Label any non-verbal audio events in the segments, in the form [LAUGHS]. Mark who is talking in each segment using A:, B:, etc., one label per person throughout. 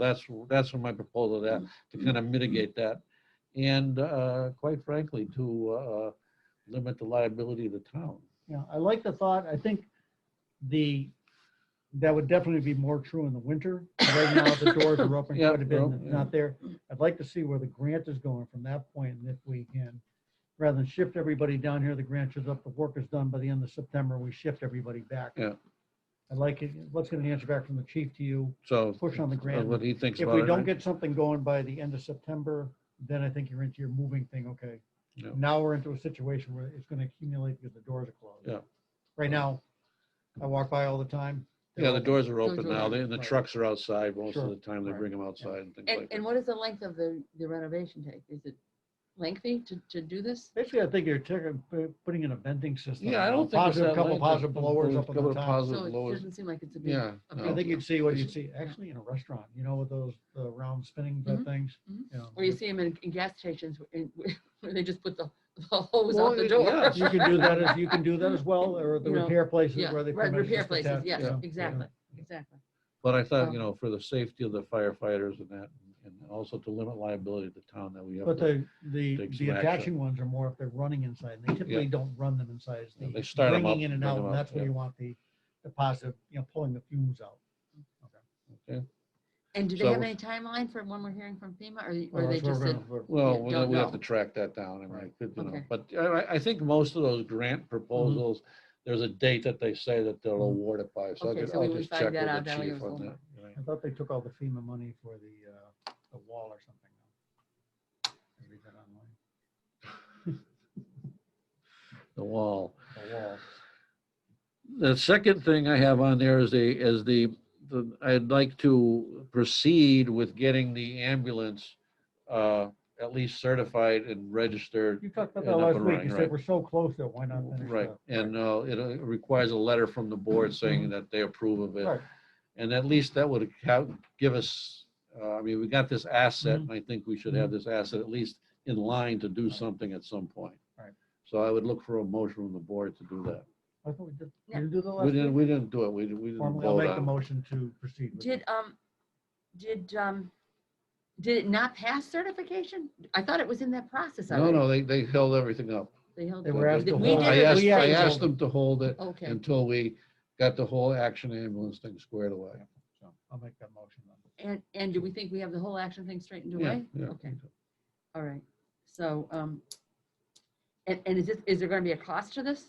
A: That's, that's what my proposal that,
B: Mm-hmm.
A: to kind of mitigate that. And uh, quite frankly, to uh, limit the liability of the town.
B: Yeah, I like the thought. I think the, that would definitely be more true in the winter. Right now, the doors are
A: [LAUGHS]
B: open
A: Yeah,
B: quite a bit, and
A: well,
B: it's not there. I'd like to see where the grant is going from that point, and if we can, rather than shift everybody down here, the grant shows up, the work is done by the end of September, we shift everybody back.
A: Yeah.
B: I'd like it, let's get an answer back from the chief to you.
A: So. uh,
B: Push on the grant.
A: What he thinks
B: If
A: about it.
B: we don't
A: right?
B: get something going by the end of September, then I think you're into your moving thing, okay?
A: Yeah.
B: Now we're into a situation where it's gonna accumulate because the doors are closed.
A: Yeah.
B: Right now, I walk by all the time. they're
A: Yeah, the
B: open.
A: doors are open
C: Doors are
A: now, they- and the
B: Right.
A: trucks are outside most of
B: Sure.
A: the time, they
B: Right.
A: bring them outside and things
C: And,
A: like
C: and
A: that.
C: what is the length of the, the renovation take? Is it lengthy to, to do this?
B: Basically, I think you're taking, pu- putting in a venting system.
A: Yeah, I
B: now,
A: don't think. it's
B: positive-
A: that
B: Couple
A: length.
B: positive
A: Couple-
B: blowers up on
A: couple
B: the
A: of
B: top.
A: Positive
C: So it
A: blowers,
C: doesn't seem like it's a big.
A: yeah.
C: a
A: no.
B: I think you'd see what you'd
A: It's-
B: see, actually in a restaurant, you know, with those, the round spinning type
C: Mhm,
B: things.
C: mhm.
B: you know,
C: Or you see them in, in gas stations where- in- [LAUGHS] where they just put the the hose
A: Well,
C: out the
A: it-
C: door.
A: yes.
B: You can do
C: [LAUGHS]
B: that, as you can do that as well, or the
C: You know,
B: repair places
C: Yeah,
B: where they.
C: right,
B: permit us to
C: repair
B: put
C: places,
B: that, you
C: yes,
B: know,
C: exactly, exactly.
A: But I thought,
C: Um,
A: you know, for the safety of the firefighters and that, and also to limit liability of the town that we have.
B: But
A: to-
B: the, the,
A: take
B: the
A: some action.
B: attaching ones are more if they're running inside. and They typically don't run them inside. It's
A: Yeah,
B: the
A: they start 'em
B: Bringing
A: up,
B: in and
A: bring
B: out,
A: 'em up,
B: and that's where
A: yeah.
B: you want the, the positive, you know, pulling the fumes out.
A: Okay.
C: And do they have
A: So-
C: any timeline for when we're hearing from FEMA or-
B: Well,
C: or they
B: Oh, that's where
C: just
B: we're
C: said?
B: gonna- we're-
A: Well,
C: Yeah,
A: we
C: don't
A: we have to
C: know.
A: track that down, I mean, I
B: Right.
A: could, you know,
C: Okay. Mm-hmm.
A: but I, I think most of those grant proposals, there's a date that they say that they'll
B: Mhm.
A: award it by, so I
C: Okay,
A: could,
C: so we
A: I'll
C: would
A: just
C: find
A: check with
C: that out,
A: the
C: that'll give
A: chief
C: us a
A: on that.
C: little
A: right.
B: I thought they took all the FEMA money for the, uh, the wall or something. I read that online.
A: The wall.
B: The wall.
A: The second thing I have on there is the, is the, the- I'd like to proceed with getting the ambulance uh at least certified and registered.
B: You talked
A: and
B: about that
A: up
B: last
A: and
B: week.
A: running,
B: You
A: right.
B: said we're so close to it. Why not finish
A: Right,
B: that?
A: and uh, it uh, requires a letter from the board saying
C: Mm-hmm.
A: that they approve of it.
B: Right.
A: And at least that would account, give us, uh, I mean, we got this asset, and I think we should have this asset at least in line to do
B: Mm-hmm. Right.
A: something at some point.
B: Right.
A: So I would look for a motion from the board to do that.
B: I thought we did,
C: Yeah.
B: did we do the
A: We
B: last
A: didn't,
B: week?
A: we didn't do it, we didn't, we didn't
B: Formally, I'll
A: vote
B: make the
A: on it.
B: motion to proceed with
C: Did,
B: it.
C: um, did, um, did it not pass certification? I thought it was in that process
A: No,
C: already.
A: no, they, they held everything up.
C: They held
B: They
C: it.
B: were asked to
C: We
B: hold
C: did
A: I
C: it.
A: asked,
B: We
A: I
B: actually
A: asked
B: told them.
A: them to hold it
C: Okay,
A: until we got the whole action ambulance thing squared away.
B: So I'll make that motion then.
C: and, and do we think we have the whole action thing straightened
A: Yeah,
C: away?
A: yeah.
C: Okay, all right, so, um, and, and is this, is there gonna be a cost to this?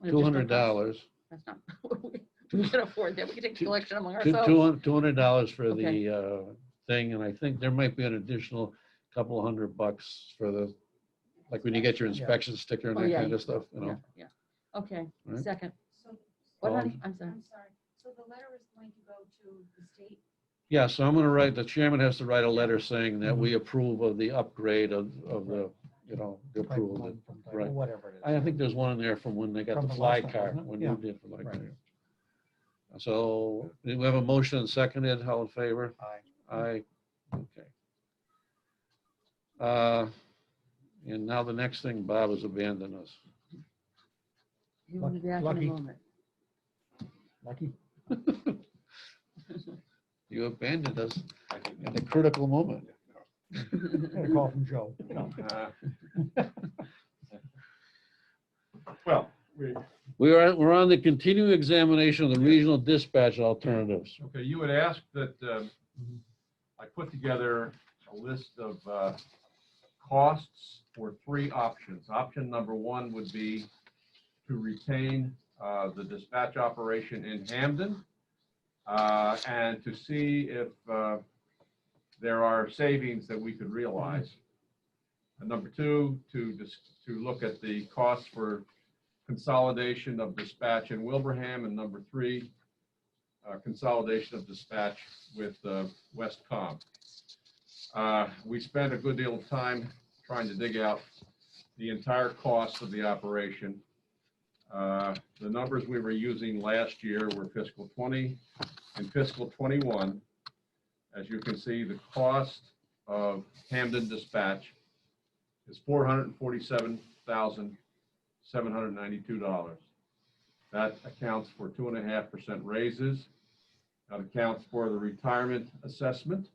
C: An
A: Two
C: additional
A: hundred
C: cost?
A: dollars.
C: That's not, [LAUGHS] we can afford that, we can take the
A: Two-
C: collection among
A: Two
C: ourselves.
A: two hundred dollars for
C: Okay.
A: the uh, thing, and I think there might be an additional couple hundred bucks for the, like when you get your
B: Yeah.
A: inspection sticker and
C: Oh,
A: that
C: yeah.
A: kind of stuff, you
C: Yeah,
A: know?
C: yeah, okay,
A: Right.
C: second,
D: So,
C: what,
A: Um,
C: honey, I'm sorry,
D: I'm sorry, so the letter is going to go to the state?
A: Yeah, so I'm gonna write, the chairman has to write a letter saying that we
B: Mm-hmm.
A: approve of the upgrade of, of the, you know, the
B: Type
A: approval. of
B: one
A: it.
B: from type-
A: right.
B: Whatever it is.
A: I think there's one in there from when they got
B: From
A: the
B: the
A: fly
B: last time,
A: car,
B: wasn't it?
A: when
B: Yeah.
A: you did the fly
B: Right.
A: car. So, do we have a motion and seconded, all in favor?
B: Aye.
A: I, okay. Uh, And now the next thing, Bob has abandoned us.
C: you want to be back in a
B: Lucky.
C: moment.
B: Lucky.
A: You abandoned us at a critical moment.
B: Got a call from Joe. You know,
E: Uh, Well, we,
A: [LAUGHS] We are, we're on the continuing examination of the regional dispatch alternatives.
E: okay, you had asked that um, I put together a list of uh, costs for three options. Option number one would be to retain uh, the dispatch operation in Hamden uh, and to see if uh, there are savings that we could realize. And number two, to, dis- to look at the costs for consolidation of dispatch in Wilbraham. And number three, uh, consolidation of dispatch with uh, Westcom. Uh, We spent a good deal of time trying to dig out the entire cost of the operation. Uh, The numbers we were using last year were fiscal 20 and fiscal 21. As you can see, the cost of Hamden dispatch is $447,792. That accounts for 2.5% raises That accounts for the retirement assessment.